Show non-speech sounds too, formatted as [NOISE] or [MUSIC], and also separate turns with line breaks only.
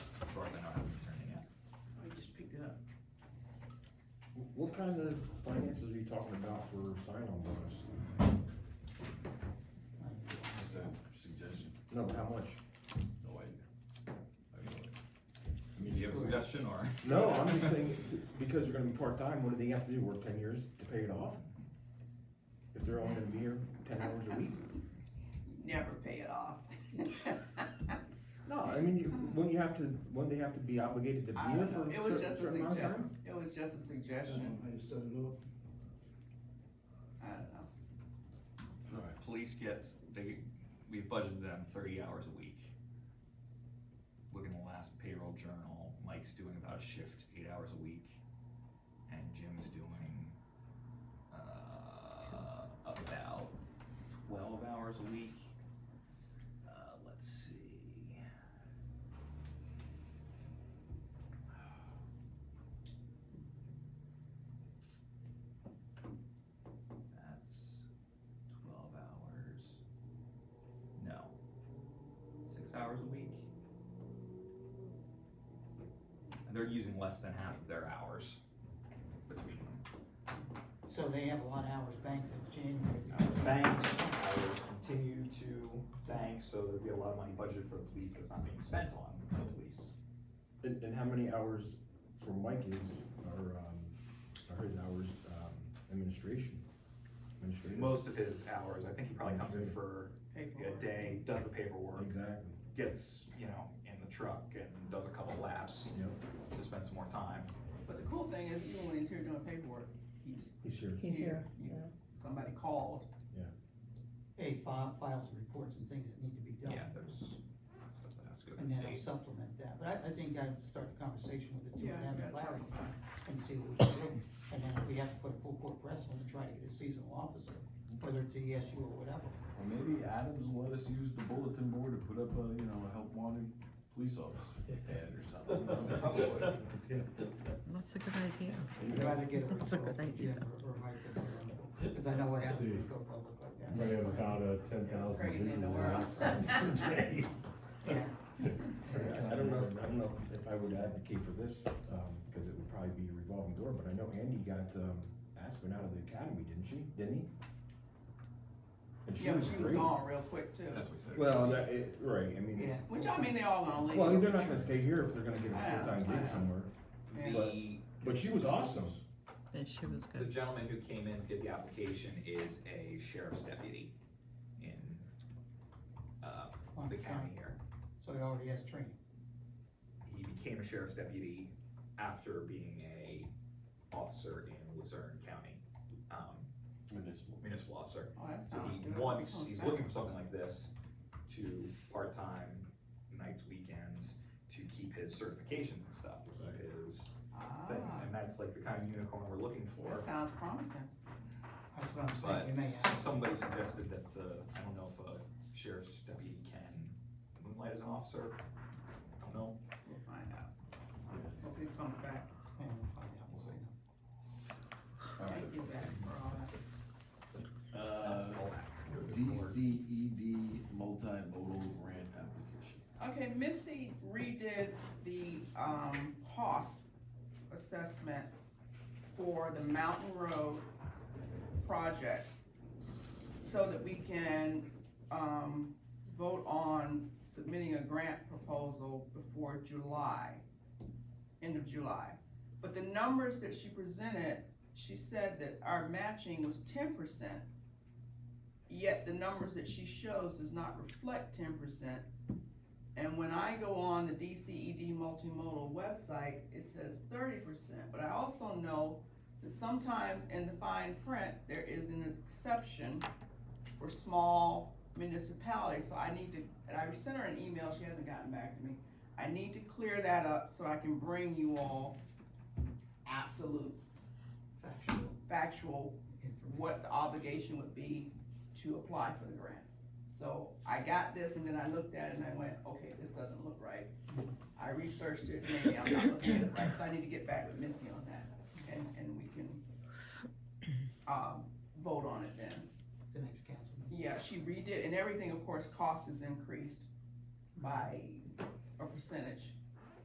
What kind of finances are you talking about for sign-on bonus?
Just a suggestion.
No, how much?
No idea. I have no idea. I mean, do you have a suggestion or?
No, I'm just saying, because they're gonna be part-time, what do they have to do, work ten years to pay it off? If they're only gonna be here ten hours a week?
Never pay it off.
No, I mean, you, when you have to, when they have to be obligated to be
Uh, I
here
don't
for
know, it
a
was
cer-
just a
certain amount of
suggestion,
time?
it was just a suggestion,
I just don't know.
I don't know.
Police gets, they, we budgeted them thirty hours a week. Look in the last payroll journal, Mike's doing about a shift, eight hours a week, and Jim's doing, uh, about twelve hours a week. Uh, let's see. That's twelve hours. No. Six hours a week. And they're using less than half of their hours between them.
So they have a lot of hours banked in
Hours
January.
banked, hours continue to bank, so there'd be a lot of money budgeted for the police that's not being spent on the police.
And, and how many hours for Mike is, or, um, or his hours, um, administration? Administrative?
Most of his hours, I think he probably comes in for a
Paperwork.
day, does the paperwork,
Exactly,
gets, you know, in the truck and does a couple laps
yep,
to spend some more time.
But the cool thing is, even when he's here doing paperwork, he's
he's here.
He's here,
You-
yeah.
Somebody called,
Hey, file, files and reports and things that need to be done.
Yeah, there's stuff that has to go to the
And then I'll
state.
supplement that, but I, I think I'd start the conversation with the two of
Yeah,
them and
yeah.
Larry and see what we can do. And then if we have to put a full court press on to try to get a seasonal officer, whether it's ESU or whatever.
Or maybe Adams will let us use the bulletin board to put up a, you know, a help wanted police officer ad or something. you know?
That's a good idea.
I'd rather get a
That's
referral
a good
from
idea.
Jim or, or Mike or whatever, cause I know what happens when
See.
you go public like that.
We have about a ten thousand
crazy in the
visuals on
world.
that
[LAUGHS]
side per day.
Yeah.
I don't know, I don't know if I would advocate for this, um, cause it would probably be a revolving door, but I know Andy got, um, Aspen out of the academy, didn't she, didn't he? And she
yeah, but
was
she was
great.
gone real quick too.
[LAUGHS] That's what he said.
Well, that, it, right, I mean, it's,
Yeah.
Which I mean, they all gonna leave.
well, they're not gonna stay here if they're gonna get
I
a
know,
full-time
I know.
gig somewhere,
Yeah.
The
but she was awesome.
And she was
The
good.
gentleman who came in to get the application is a sheriff's deputy in, uh, the county here.
So he already has training.
He became a sheriff's deputy after being a officer in Luzerne County, um,
Municipal.
municipal officer.
Oh, that
So
sounds
he
good.
wants,
Comes
he's
back.
looking for something like this to part-time, nights, weekends, to keep his certifications and stuff, to keep his things.
Ah,
And that's like the kind of unicorn we're looking for.
that sounds promising.
That's what I'm saying.
But
You may have.
somebody suggested that the, I don't know if a sheriff's deputy can moonlight as an officer. I don't know.
We'll find out. Hope he comes back.
Yeah, we'll find out.
We'll see.
Thank you, Zach, for all that.
Uh,
That's all that.
DCED multimodal grant application.
Okay, Missy redid the, um, cost assessment for the Mountain Road project so that we can, um, vote on submitting a grant proposal before July, end of July. But the numbers that she presented, she said that our matching was ten percent. Yet the numbers that she shows does not reflect ten percent. And when I go on the DCED multimodal website, it says thirty percent, but I also know that sometimes in the fine print, there is an exception for small municipalities, so I need to, and I sent her an email, she hasn't gotten back to me. I need to clear that up so I can bring you all absolute
Factual.
factual what the obligation would be to apply for the grant. So I got this and then I looked at it and I went, okay, this doesn't look right. I researched it, maybe I'm not looking at it right, so I need to get back with Missy on that and, and we can, um, vote on it then.
The next council meeting.
Yeah, she redid, and everything, of course, cost is increased by a percentage.